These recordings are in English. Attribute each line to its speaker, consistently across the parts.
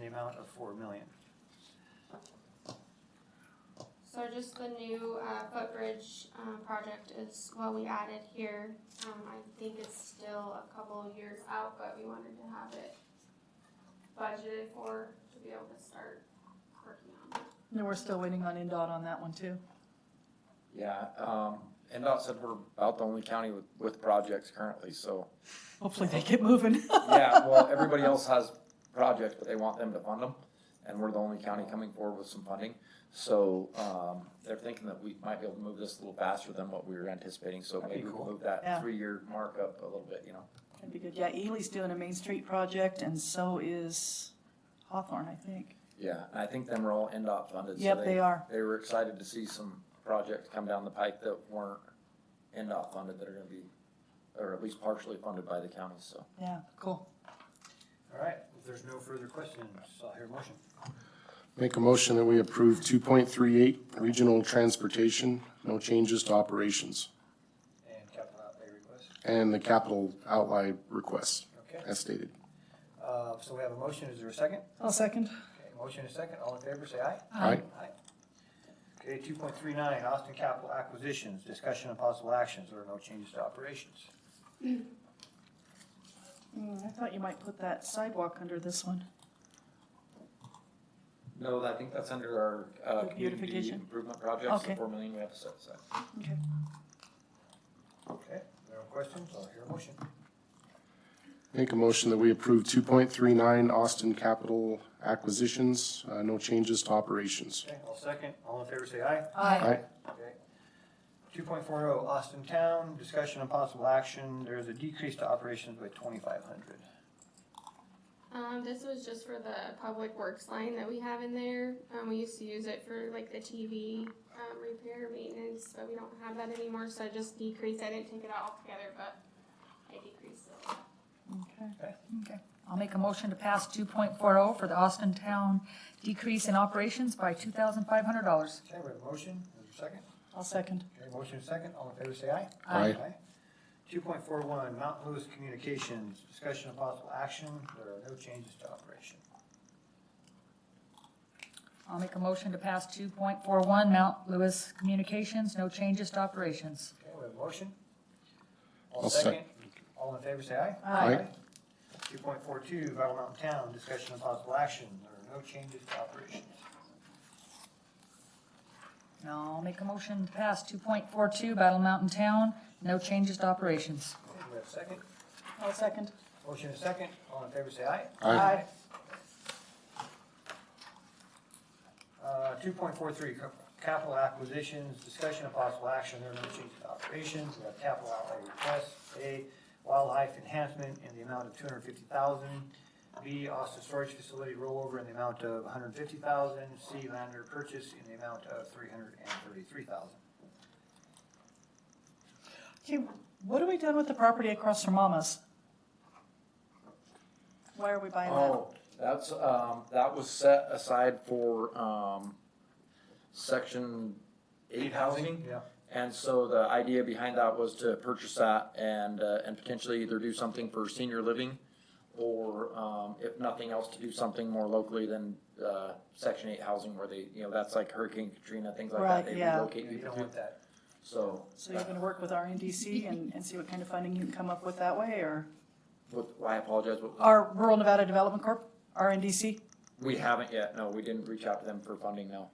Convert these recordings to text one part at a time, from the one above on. Speaker 1: the amount of four million.
Speaker 2: So just the new uh, footbridge um, project is what we added here. Um, I think it's still a couple of years out, but we wanted to have it budgeted for to be able to start working on. it.
Speaker 3: No, we're still waiting on NDOT on that one too.
Speaker 4: Yeah, um, NDOT said we're about the only county with, with projects currently, so,
Speaker 3: Hopefully they get moving.
Speaker 4: yeah, well, everybody else has projects, but they want them to fund them, and we're the only county coming forward with some funding. So, um, they're thinking that we might be able to move this a little faster than what we were anticipating, so
Speaker 1: That'd be
Speaker 4: maybe we'll
Speaker 1: cool.
Speaker 4: move
Speaker 3: Yeah.
Speaker 4: that three-year mark up a little bit, you know?
Speaker 3: That'd be good. Yeah, Ely's doing a Main Street project and so is Hawthorne, I think.
Speaker 4: Yeah, and I think them are all NDOT funded, so
Speaker 3: Yep, they are.
Speaker 4: They were excited to see some projects come down the pike that weren't NDOT funded, that are gonna be, or at least partially funded by the county, so.
Speaker 3: Yeah, cool.
Speaker 1: All right, if there's no further questions, I'll hear a motion.
Speaker 5: Make a motion that we approve two point three eight, regional transportation, no changes to operations,
Speaker 1: And capital outlay request,
Speaker 5: and the capital outlay request,
Speaker 1: okay?
Speaker 5: as stated.
Speaker 1: Uh, so we have a motion, is there a second?
Speaker 3: I'll second.
Speaker 1: Okay, motion is second, all in favor, say aye.
Speaker 5: Aye.
Speaker 1: Aye. Okay, two point three nine, Austin Capital Acquisitions, discussion and possible actions, there are no changes to operations.
Speaker 3: Mm, I thought you might put that sidewalk under this one.
Speaker 4: No, I think that's under our, uh,
Speaker 3: The
Speaker 4: community
Speaker 3: beautification?
Speaker 4: improvement projects, the
Speaker 3: Okay.
Speaker 4: four million we have to set aside.
Speaker 3: Okay.
Speaker 1: Okay, no questions, I'll hear a motion.
Speaker 5: Make a motion that we approve two point three nine, Austin capital acquisitions, uh, no changes to operations.
Speaker 1: Okay, I'll second, all in favor, say aye.
Speaker 5: Aye.
Speaker 1: Okay. Two point four oh, Austin Town, discussion and possible action, there is a decrease to operations by twenty-five hundred.
Speaker 2: Um, this was just for the public works line that we have in there. Um, we used to use it for like the TV um, repair maintenance, but we don't have that anymore. So I just decreased. I didn't take it out altogether, but I decreased it.
Speaker 3: Okay. Okay.
Speaker 6: I'll make a motion to pass two point four oh for the Austin Town decrease in operations by two thousand five hundred dollars.
Speaker 1: Okay, we have a motion, is there a second?
Speaker 3: I'll second.
Speaker 1: Okay, motion is second, all in favor, say aye.
Speaker 5: Aye.
Speaker 1: Two point four one, Mount Lewis Communications, discussion and possible action, there are no changes to operation.
Speaker 6: I'll make a motion to pass two point four one Mount Lewis Communications, no changes to operations.
Speaker 1: Okay, we have a motion.
Speaker 5: I'll sec-
Speaker 1: All in favor, say aye.
Speaker 5: Aye. Aye.
Speaker 1: Two point four two, Battle Mountain Town, discussion and possible action, there are no changes to operations.
Speaker 6: Now, I'll make a motion to pass two point four two Battle Mountain Town, no changes to operations.
Speaker 1: Okay, we have a second,
Speaker 3: I'll second.
Speaker 1: motion is second, all in favor, say aye.
Speaker 5: Aye.
Speaker 1: Uh, two point four three, capital acquisitions, discussion of possible action, there are no changes to operations, we have capital outlay request. A, wildlife enhancement in the amount of two hundred fifty thousand. B, Austin Storage Facility rollover in the amount of one hundred fifty thousand. C, lander purchase in the amount of three hundred and thirty-three thousand.
Speaker 3: Okay, what have we done with the property across from Mama's? Why are we buying that?
Speaker 4: Oh, that's, um, that was set aside for, um, section eight housing.
Speaker 1: Yeah,
Speaker 4: And so the idea behind that was to purchase that and, uh, and potentially either do something for senior living or, um, if nothing else, to do something more locally than, uh, section eight housing where they, you know, that's like Hurricane Katrina, things like
Speaker 3: Right,
Speaker 4: that. They
Speaker 3: yeah.
Speaker 4: relocate
Speaker 1: you
Speaker 4: people
Speaker 1: don't
Speaker 4: to,
Speaker 1: want that.
Speaker 4: so.
Speaker 3: So you're gonna work with RNDC and, and see what kind of funding you can come up with that way, or?
Speaker 4: What- I apologize, what-
Speaker 3: Our Rural Nevada Development Corp, RNDC,
Speaker 4: we haven't yet, no, we didn't reach out to them for funding, no.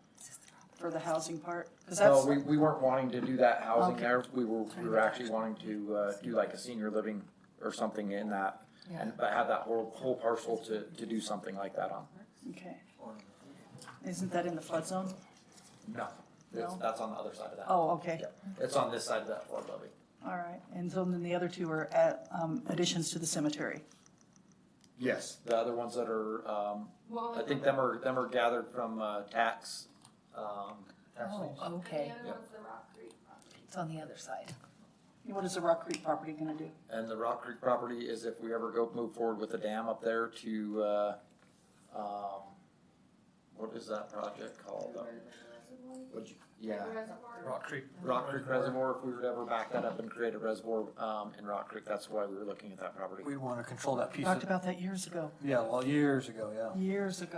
Speaker 3: for the housing part, because
Speaker 4: No,
Speaker 3: that's,
Speaker 4: we, we weren't wanting to do that housing
Speaker 3: Okay.
Speaker 4: there, we were, we were actually wanting to, uh, do like a senior living or something in that. And, but have that whole, whole parcel to, to do something like that on.
Speaker 3: okay. Isn't that in the flood zone?
Speaker 4: No, that's,
Speaker 3: No?
Speaker 4: that's on the other side of that.
Speaker 3: Oh, okay,
Speaker 4: Yeah, It's on this side of that flood levy.
Speaker 3: all right. And so then the other two are at, um, additions to the cemetery.
Speaker 5: Yes.
Speaker 4: The other ones that are, um,
Speaker 2: Well,
Speaker 4: I think them are, them are gathered from, uh, tax, um,
Speaker 1: Tax
Speaker 6: Oh,
Speaker 1: liens.
Speaker 6: okay,
Speaker 2: And the other one's the Rock Creek property.
Speaker 6: it's on the other side.
Speaker 3: What is the Rock Creek property gonna do?
Speaker 4: And the Rock Creek property is if we ever go move forward with the dam up there to, uh, um, what is that project called? What'd you- Yeah,
Speaker 1: Rock Creek.
Speaker 4: Rock Creek Reservoir, if we were to ever back that up and create a reservoir, um, in Rock Creek, that's why we were looking at that property.
Speaker 1: We wanna control that piece
Speaker 3: Talked
Speaker 1: of,
Speaker 3: about that years ago,
Speaker 1: yeah, well, years ago, yeah.
Speaker 3: years ago.